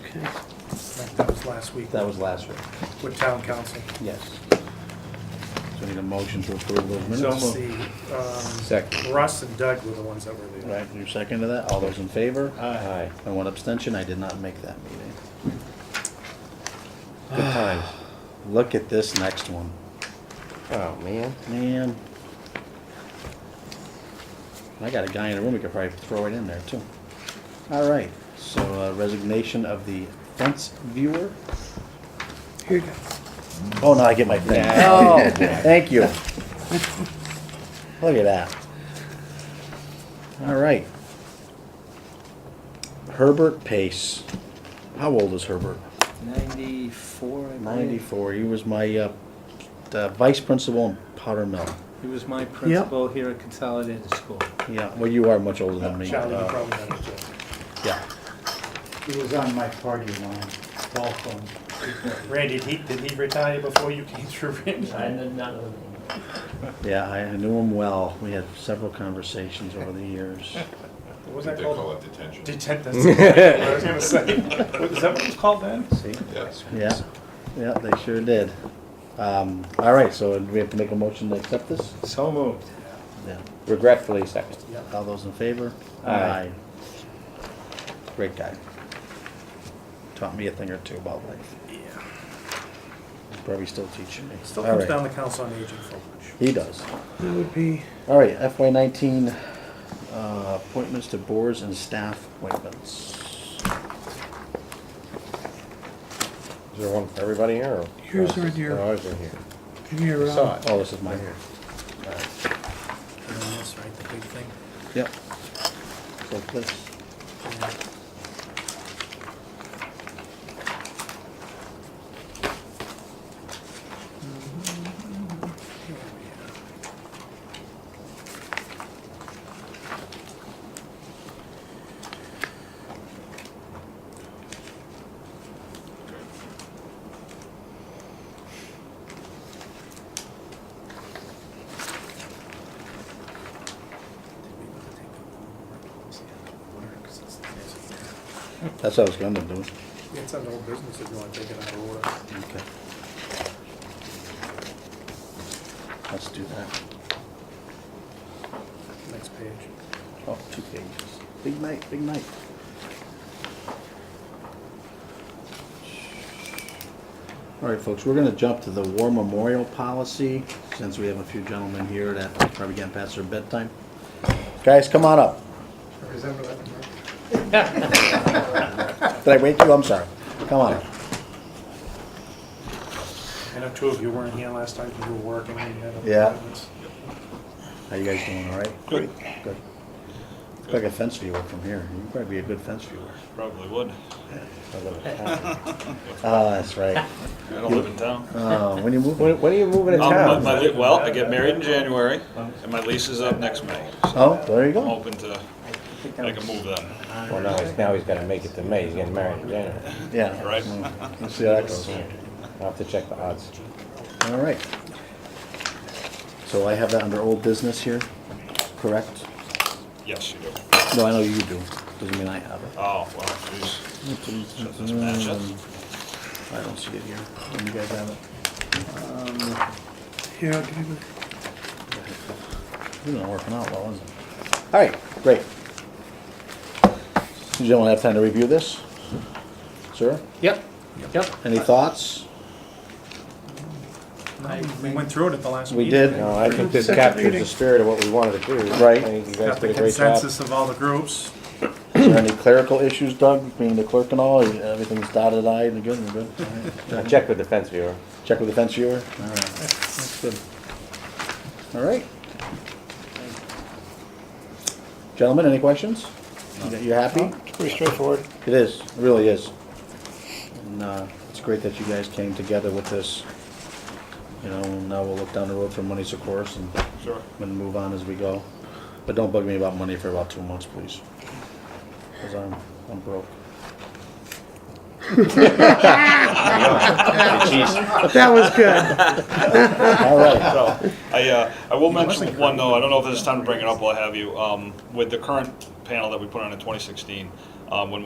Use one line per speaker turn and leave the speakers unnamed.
Okay,
That was last week
that was last week,
with town council.
yes. So need a motion to approve those
So
minutes?
it's the, um,
Second.
Russ and Doug were the ones that were there.
Right, you second to that? All those in favor?
Aye.
And one abstention, I did not make that meeting.
Good times.
Look at this next one.
Oh, man.
Man. I got a guy in the room, we could probably throw it in there too. All right, so uh, resignation of the fence viewer.
Here you go.
Oh, now I get my thing. Oh, thank you. Look at that. All right. Herbert Pace. How old is Herbert?
94, I believe.
Ninety-four. He was my, uh, the vice principal in Potter Mill.
He was my principal here at Consolidated School.
Yeah, well, you are much older than me.
Charlie, you
Uh,
probably had it, Jeff.
Yeah.
He was on my party line, ball phone.
Randy, did he, did he retire before you came through, Randy?
Yeah, I I knew him well. We had several conversations over the years.
What was
They
that
call
called?
it detention.
Detent, that's what I was gonna say. What- Is that what it's called then?
See?
Yes.
Yeah, yeah, they sure did. Um, all right, so do we have to make a motion to accept this?
So moved.
Yeah.
Regretfully second.
All those in favor?
Aye.
Great guy. Taught me a thing or two about life. Yeah. Probably still teaching me.
Still
All
comes
right.
down to council on aging folks.
He does.
That would be.
All right, FY nineteen, uh, appointments to boards and staff appointments.
Is there one for everybody here? or-
Here's
Oh,
right
it's-
here.
oh, ours are here.
And here, uh,
Saw it.
Oh, this is mine here.
That's right, the big thing.
Yep. So this,
Yeah.
that's what I was gonna do.
It's an old business if you want to take it out of order.
Okay. Let's do that.
Next page.
Oh, two pages. Big night, big night. All right, folks, we're gonna jump to the war memorial policy, since we have a few gentlemen here that probably getting past their bedtime. Guys, come on up. Did I wake you? I'm sorry. Come on up.
I know two of you weren't here last time because you were working and you had
Yeah.
appointments.
How you guys doing, all right? Good. Good. Look Like a fence viewer from here. You'd probably be a good fence viewer.
Probably would.
I love it. Ah, that's right.
I don't live in town.
Uh, when you move,
When, when are you moving to
Um, my-
town?
my li- Well, I get married in January, and my lease is up next May. So
oh, there you
I'm
go.
hoping to make a move then.
Well, now he's, now he's gotta make it to May, he's getting married in January.
Yeah.
Right.
Let's see how that goes.
I'll have to check the odds.
All right. So I have that under old business here, correct?
Yes, you do.
No, I know you do. Doesn't mean I have it.
Oh, well, geez. Does this match up?
Mm. I don't see it here. You guys have it?
Um, here, I'll give you the-
This isn't working out well, is it? All right, great. You gentlemen have time to review this? Sir,
Yep, yep.
any thoughts?
We went through it at the last
We
meeting.
did.
No, I think this captures the spirit of what we wanted to do.
Right.
I think you guys
Got the
did a great job.
consensus of all the groups.
Is there any clerical issues, Doug, being the clerk and all? Everything's dotted I and good and good? All right.
I checked with the fence viewer.
Check with the fence viewer? All right, that's good. All right. Gentlemen, any questions? You- You happy?
Pretty straightforward.
It is, it really is. And, uh, it's great that you guys came together with this. You know, now we'll look down the road for monies, of course, and
Sure.
and move on as we go. But don't bug me about money for about two months, please. Cause I'm, I'm broke.
That was good.
All right,
So, I, uh, I will mention one though, I don't know if this is time to bring it up while I have you, um, with the current panel that we put on in twenty sixteen, um, when